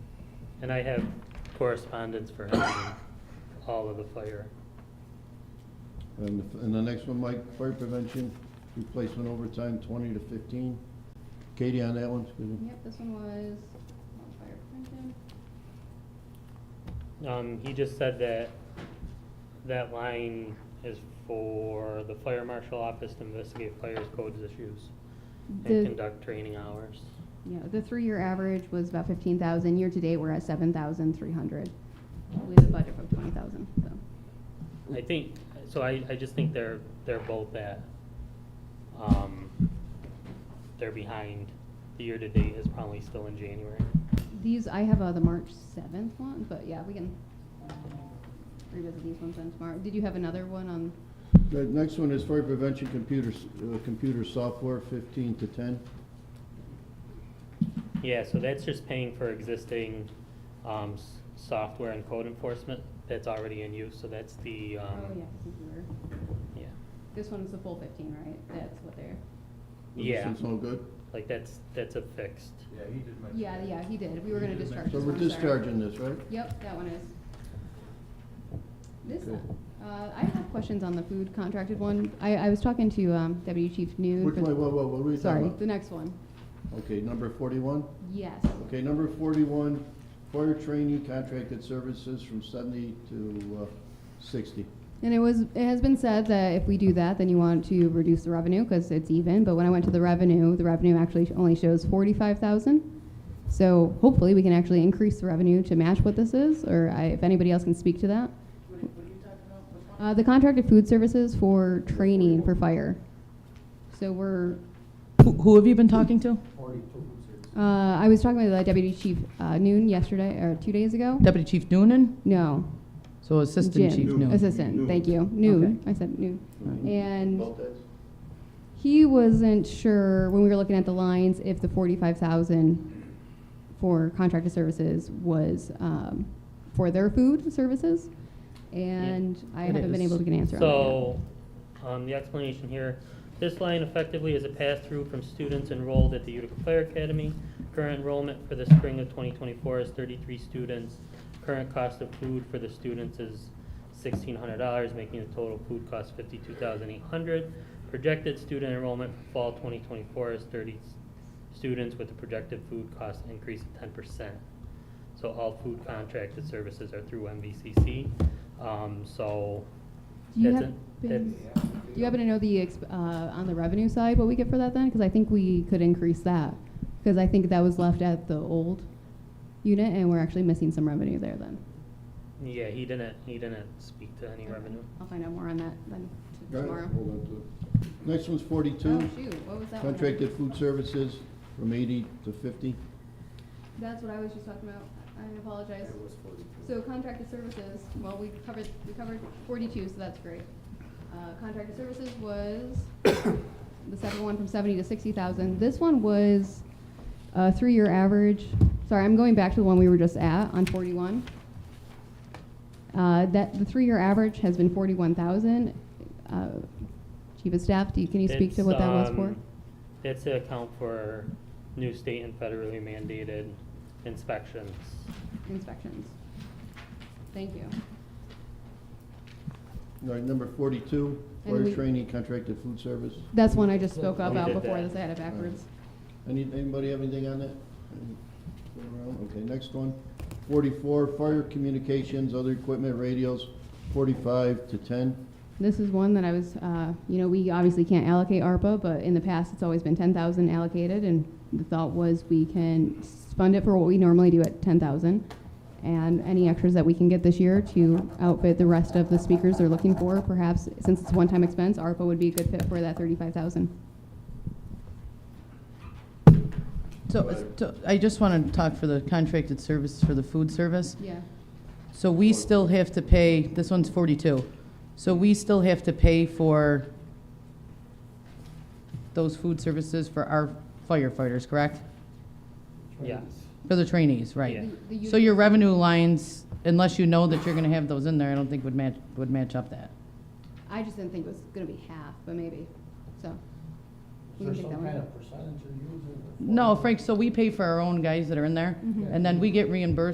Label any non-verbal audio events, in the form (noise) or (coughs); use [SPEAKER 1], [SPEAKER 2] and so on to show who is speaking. [SPEAKER 1] And I have correspondence for him and all of the fire.
[SPEAKER 2] And, the- and the next one, Mike, fire prevention, replacement overtime, twenty to fifteen. Katie on that one, excuse me.
[SPEAKER 3] Yep, this one was on fire prevention.
[SPEAKER 1] Um, he just said that that line is for the fire marshal office to investigate fires codes issues and
[SPEAKER 3] The,
[SPEAKER 1] conduct training hours.
[SPEAKER 3] yeah, the three-year average was about fifteen thousand. Year-to-date, we're at seven thousand three hundred with a budget of twenty thousand, so.
[SPEAKER 1] I think, so I, I just think they're, they're both at, um, they're behind. The year-to-date is probably still in January.
[SPEAKER 3] These, I have uh, the March seventh one, but yeah, we can revisit these ones then tomorrow. Did you have another one on,
[SPEAKER 2] The next one is fire prevention computers, uh, computer software, fifteen to ten.
[SPEAKER 1] Yeah, so that's just paying for existing, um, s- software and code enforcement that's already in use, so that's the,
[SPEAKER 3] oh,
[SPEAKER 1] um,
[SPEAKER 3] yeah, this is where-
[SPEAKER 1] yeah.
[SPEAKER 3] this one's the full fifteen, right? That's what they're,
[SPEAKER 1] Yeah.
[SPEAKER 2] This one's no good.
[SPEAKER 1] Like, that's, that's a fixed.
[SPEAKER 4] Yeah, he did mention.
[SPEAKER 3] yeah,
[SPEAKER 4] that.
[SPEAKER 3] yeah, he did. We were gonna discharge
[SPEAKER 2] So
[SPEAKER 3] this
[SPEAKER 2] we're
[SPEAKER 3] one, sorry.
[SPEAKER 2] discharging this, right?
[SPEAKER 3] Yep, that one is. This,
[SPEAKER 2] Okay.
[SPEAKER 3] uh, I have questions on the food contracted one. I, I was talking to, um, Deputy Chief New.
[SPEAKER 2] Which one, whoa, whoa, what were you talking
[SPEAKER 3] Sorry,
[SPEAKER 2] about?
[SPEAKER 3] the next one.
[SPEAKER 2] Okay, number forty-one?
[SPEAKER 3] Yes.
[SPEAKER 2] Okay, number forty-one, fire training contracted services from seventy to, uh, sixty.
[SPEAKER 3] And it was, it has been said that if we do that, then you want to reduce the revenue because it's even. But when I went to the revenue, the revenue actually only shows forty-five thousand. So hopefully we can actually increase the revenue to match what this is, or I, if anybody else can speak to that. Uh, the contracted food services for training for fire. So we're,
[SPEAKER 5] Who- Who have you been talking to?
[SPEAKER 4] Forty-two services.
[SPEAKER 3] uh, I was talking with the deputy chief, uh, noon yesterday, or two days ago?
[SPEAKER 5] Deputy Chief Noonan?
[SPEAKER 3] No,
[SPEAKER 5] So
[SPEAKER 3] Jim.
[SPEAKER 5] Assistant Chief Noonan.
[SPEAKER 3] Assistant, thank you, noon, I said noon. And he wasn't sure, when we were looking at the lines, if the forty-five thousand for contracted services was, um, for their food services, and I
[SPEAKER 5] It
[SPEAKER 3] haven't been
[SPEAKER 5] is.
[SPEAKER 3] able to get an answer on that yet.
[SPEAKER 1] So, um, the explanation here, this line effectively is a pass-through from students enrolled at the Utica Fire Academy. Current enrollment for the spring of twenty twenty-four is thirty-three students. Current cost of food for the students is sixteen hundred dollars, making the total food cost fifty-two thousand eight hundred. Projected student enrollment for fall twenty twenty-four is thirty s- students with a projected food cost increase of ten percent. So all food contracted services are through MVCC, um, so
[SPEAKER 3] Do you
[SPEAKER 1] that's
[SPEAKER 3] have
[SPEAKER 1] it.
[SPEAKER 3] been-
[SPEAKER 1] That's-
[SPEAKER 3] Do you happen to know the, exp- uh, on the revenue side, what we get for that then? Because I think we could increase that, because I think that was left at the old unit, and we're actually missing some revenue there then.
[SPEAKER 1] Yeah, he didn't, he didn't speak to any revenue.
[SPEAKER 3] I'll find out more on that then t- tomorrow.
[SPEAKER 2] Next one's
[SPEAKER 3] Oh,
[SPEAKER 2] forty-two,
[SPEAKER 3] shoot, what was that one?
[SPEAKER 2] contracted food services from eighty to fifty.
[SPEAKER 3] That's what I was just talking about, I apologize.
[SPEAKER 4] It was forty-two.
[SPEAKER 3] So contracted services, well, we covered, we covered forty-two, so that's great. Uh, contracted services was (coughs) the second one from seventy to sixty thousand. This one was a three-year average. Sorry, I'm going back to the one we were just at on forty-one. Uh, that, the three-year average has been forty-one thousand. Uh, Chief of Staff, do you, can you speak to
[SPEAKER 1] It's,
[SPEAKER 3] what that was for?
[SPEAKER 1] um, That's to account for new state and federally mandated inspections.
[SPEAKER 3] Inspections. Thank you.
[SPEAKER 2] All right, number forty-two,
[SPEAKER 3] And
[SPEAKER 2] fire
[SPEAKER 3] we-
[SPEAKER 2] training contracted food service.
[SPEAKER 3] That's one I just spoke
[SPEAKER 1] We
[SPEAKER 3] about
[SPEAKER 1] did
[SPEAKER 3] before
[SPEAKER 1] that.
[SPEAKER 3] this, I had it backwards.
[SPEAKER 2] Any, anybody have anything on that? Go around. Okay, next one. Forty-four, fire communications, other equipment, radios, forty-five to ten.
[SPEAKER 3] This is one that I was, uh, you know, we obviously can't allocate ARPA, but in the past, it's always been ten thousand allocated, and the thought was we can s- fund it for what we normally do at ten thousand, and any extras that we can get this year to outfit the rest of the speakers they're looking for, perhaps, since it's a one-time expense, ARPA would be a good fit for that thirty-five thousand.
[SPEAKER 5] So, so I just want to talk for the contracted service, for the food service.
[SPEAKER 3] Yeah.
[SPEAKER 5] So we still have to pay, this one's 42. So we still have to pay for those food services for our firefighters, correct?
[SPEAKER 1] Yeah.
[SPEAKER 5] For the trainees,
[SPEAKER 1] Yeah.
[SPEAKER 5] right?
[SPEAKER 3] The- the
[SPEAKER 5] So
[SPEAKER 3] unit-
[SPEAKER 5] your revenue lines, unless you know that you're going to have those in there, I don't think would match, would match up that.
[SPEAKER 3] I just didn't think it was gonna be half, but maybe, so.
[SPEAKER 4] Is
[SPEAKER 3] we can take
[SPEAKER 4] there
[SPEAKER 3] that
[SPEAKER 4] some
[SPEAKER 3] one
[SPEAKER 4] kind
[SPEAKER 3] out.
[SPEAKER 4] of percentage you're using? or
[SPEAKER 5] No, Frank, so we pay for our own guys that are in there,
[SPEAKER 3] Mhm.
[SPEAKER 5] and then we get reimbursed